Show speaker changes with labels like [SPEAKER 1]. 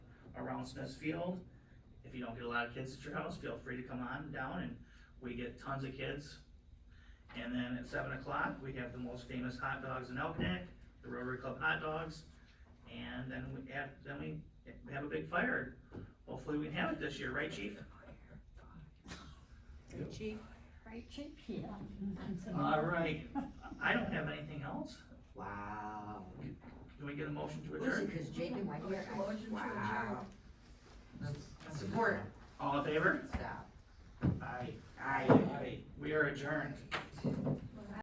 [SPEAKER 1] around Smith's Field. If you don't get a lot of kids at your house, feel free to come on down and we get tons of kids. And then at seven o'clock, we have the most famous hot dogs in Elginak, the Rotary Club hot dogs. And then we have, then we- we have a big fire. Hopefully we have it this year, right, chief?
[SPEAKER 2] Chief,
[SPEAKER 3] Right, Chip? Yeah.
[SPEAKER 1] All right, I don't have anything else.
[SPEAKER 2] wow.
[SPEAKER 1] Can we get a motion to
[SPEAKER 2] Was
[SPEAKER 1] adjourn?
[SPEAKER 2] it cause Jacob went here? I-
[SPEAKER 3] Motion to
[SPEAKER 2] Wow.
[SPEAKER 3] Support.
[SPEAKER 1] All in favor?
[SPEAKER 2] Stop.
[SPEAKER 1] Aye.
[SPEAKER 2] I.
[SPEAKER 1] We are adjourned.